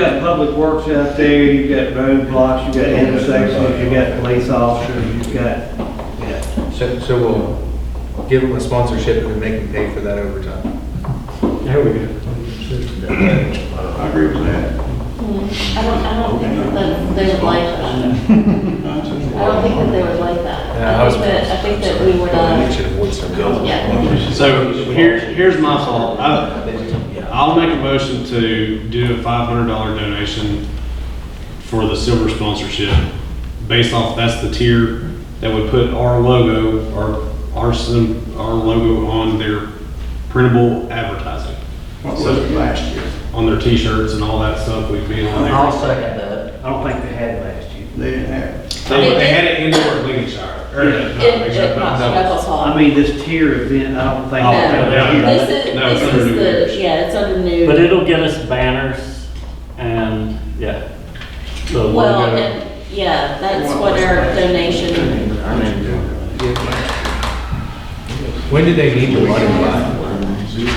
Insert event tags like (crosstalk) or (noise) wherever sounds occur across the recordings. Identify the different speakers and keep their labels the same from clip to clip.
Speaker 1: got public works out there, you've got roadblocks, you've got intersections, you've got police officers, you've got, yeah.
Speaker 2: So, so we'll give them a sponsorship and make them pay for that overtime.
Speaker 3: There we go.
Speaker 4: I agree with that.
Speaker 5: I don't, I don't think that they would like that. I don't think that they would like that.
Speaker 2: Yeah,
Speaker 5: I
Speaker 2: was-
Speaker 5: think that, I think that
Speaker 2: sorry.
Speaker 5: we would,
Speaker 2: We
Speaker 5: uh,
Speaker 2: should avoid some girls.
Speaker 5: yeah.
Speaker 6: So here, here's my thought. I- I'll make a motion to do a five hundred dollar donation for the silver sponsorship. Based off, that's the tier that would put our logo, our, our, sim- our logo on their printable advertising.
Speaker 4: What was it last year?
Speaker 6: On their t-shirts and all that stuff we'd be on there.
Speaker 3: second that.
Speaker 1: I don't think they had last year.
Speaker 4: They didn't have.
Speaker 6: They they had it indoor at Lincolnshire. or, uh, not
Speaker 5: It,
Speaker 6: Lincolnshire,
Speaker 5: it,
Speaker 6: but-
Speaker 5: not
Speaker 6: no.
Speaker 5: Knuckles Hall.
Speaker 1: I mean, this tier event, I don't think.
Speaker 6: Oh, yeah.
Speaker 5: This is,
Speaker 6: No, it's
Speaker 5: this
Speaker 6: under new
Speaker 5: is
Speaker 6: leadership.
Speaker 5: the, yeah, it's under
Speaker 3: But
Speaker 5: new,
Speaker 3: it'll get us banners and, yeah. The
Speaker 5: well,
Speaker 3: logo.
Speaker 5: and- yeah, that's what our donation,
Speaker 2: When did they need the money by?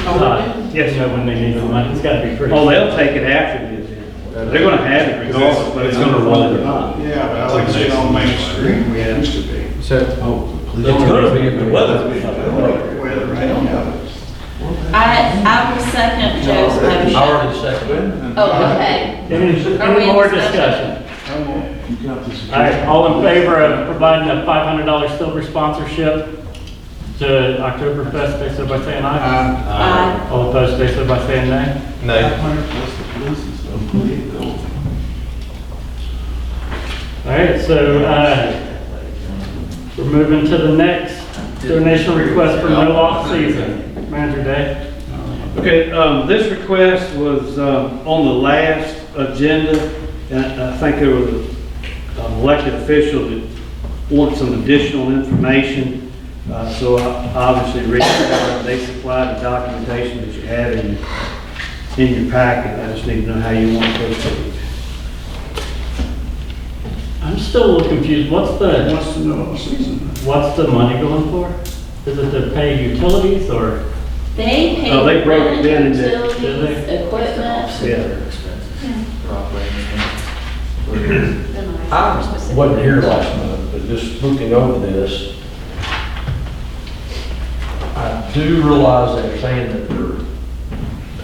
Speaker 3: Uh, Yes, yeah, when they need the money, it's gotta be pretty.
Speaker 1: Oh, they'll take it after the event. They're gonna have it regardless. but
Speaker 6: It's gonna roll.
Speaker 4: Yeah, but I like to see it on Main Street, we used to be.
Speaker 2: So.
Speaker 7: It's gonna be, the weather's
Speaker 4: I don't like the weather, I don't have it.
Speaker 5: I, I will second Joe's
Speaker 7: I
Speaker 5: motion.
Speaker 7: already seconded.
Speaker 5: Oh, okay.
Speaker 3: Any
Speaker 5: Are we
Speaker 3: any
Speaker 5: in
Speaker 3: more
Speaker 5: discussion?
Speaker 3: discussion? All right, all in favor of providing a five hundred dollar silver sponsorship to Oktoberfest, they said by saying aye.
Speaker 5: Aye.
Speaker 3: All opposed, they said by saying nay.
Speaker 2: No.
Speaker 3: All right, so, uh, we're moving to the next donation request for no off season, manager day.
Speaker 1: Okay, um, this request was, um, on the last agenda, and I think there was an elected official that wants some additional information, uh, so I obviously reached out, and they supplied the documentation that you had in, in your packet, I just need to know how you want to proceed.
Speaker 3: I'm still a little confused, what's
Speaker 4: Who
Speaker 3: the,
Speaker 4: Wants to know what season.
Speaker 3: what's the money going for? Is it to pay utilities or?
Speaker 5: They pay.
Speaker 1: Oh, they broke it down into-
Speaker 5: Utilities, equipment.
Speaker 1: Yeah.
Speaker 7: I wasn't here last month, but just looking over this, I do realize they're saying that they're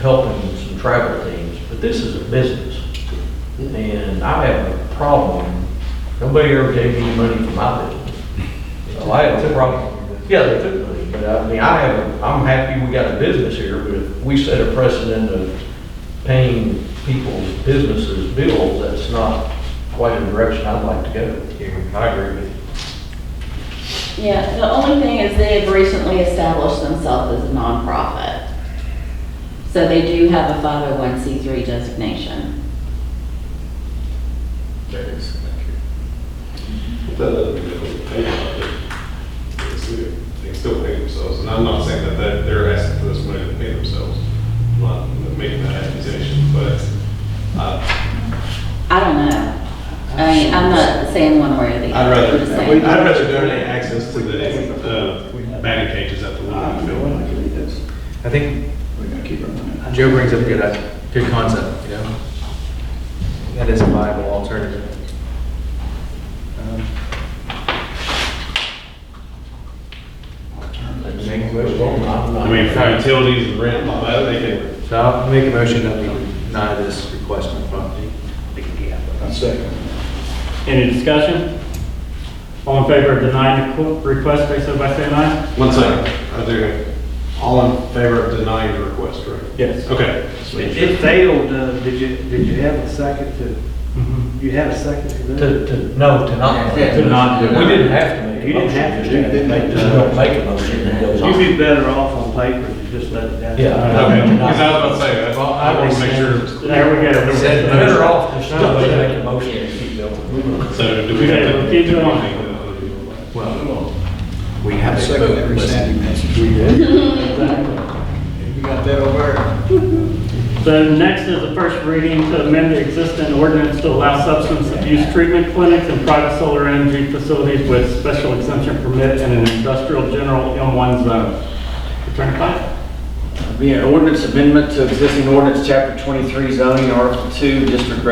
Speaker 7: helping some travel teams, but this is a business. And I have a problem, nobody ever gave me money for my business. So I have a problem. Yeah, they took money, but I mean, I have, a- I'm happy we got a business here, but if we set a precedent of paying people's businesses bills, that's not quite the direction I'd like to go. I agree with you.
Speaker 5: Yeah, the only thing is they have recently established themselves as a nonprofit. So they do have a 501c3 designation.
Speaker 6: That doesn't mean they pay They can still pay themselves, and I'm not saying that they're- they're asking for this money to pay themselves. I'm not making that accusation, but uh, I-
Speaker 5: I don't know. I mean, I'm not saying one way or the
Speaker 6: I'd
Speaker 5: other.
Speaker 6: rather,
Speaker 5: I'm just saying-
Speaker 6: I'd rather donate access to the uh, batting cages at the Little Field.
Speaker 2: I think
Speaker 4: We're gonna keep our money.
Speaker 2: Joe brings up a good, idea- good concept, you know? That is a viable alternative. Um,
Speaker 6: I mean, for utilities and rent, and all that, they can,
Speaker 2: So I'll make a motion that we deny this request on property.
Speaker 4: I second.
Speaker 3: Any discussion? All in favor of denying the qu- request, they said by saying aye?
Speaker 6: one second, are there, all in favor of denying the request, right?
Speaker 3: Yes.
Speaker 6: Okay.
Speaker 1: It it failed, uh, did you, did you have a second to,
Speaker 3: Mhm.
Speaker 1: you had a second to that?
Speaker 7: Mm-hmm. To, to, no, to not.
Speaker 3: To not do it.
Speaker 7: We didn't have to make a
Speaker 1: You didn't have to do
Speaker 7: motion,
Speaker 1: that.
Speaker 7: They just don't make a motion, it goes on.
Speaker 1: You'd be better off on paper than just let it down.
Speaker 7: Yeah.
Speaker 6: Okay, because I was about to say, I-
Speaker 2: Well,
Speaker 6: I want to make sure,
Speaker 3: There we go.
Speaker 2: Said
Speaker 7: Better off just not make a motion and keep going.
Speaker 6: so do we have to?
Speaker 3: Keep it on.
Speaker 2: Well, we have
Speaker 4: I
Speaker 2: a
Speaker 4: second
Speaker 2: vote.
Speaker 4: every
Speaker 2: Listen,
Speaker 4: Sandy message. (laughs) You got that over there?
Speaker 3: So next is the first reading to amend the existing ordinance to allow substance abuse treatment clinics and private solar energy facilities with special exemption permit in an industrial general M1 zone. Attorney Pike?
Speaker 8: be an ordinance amendment to existing ordinance, chapter 23 zoning, article 2, district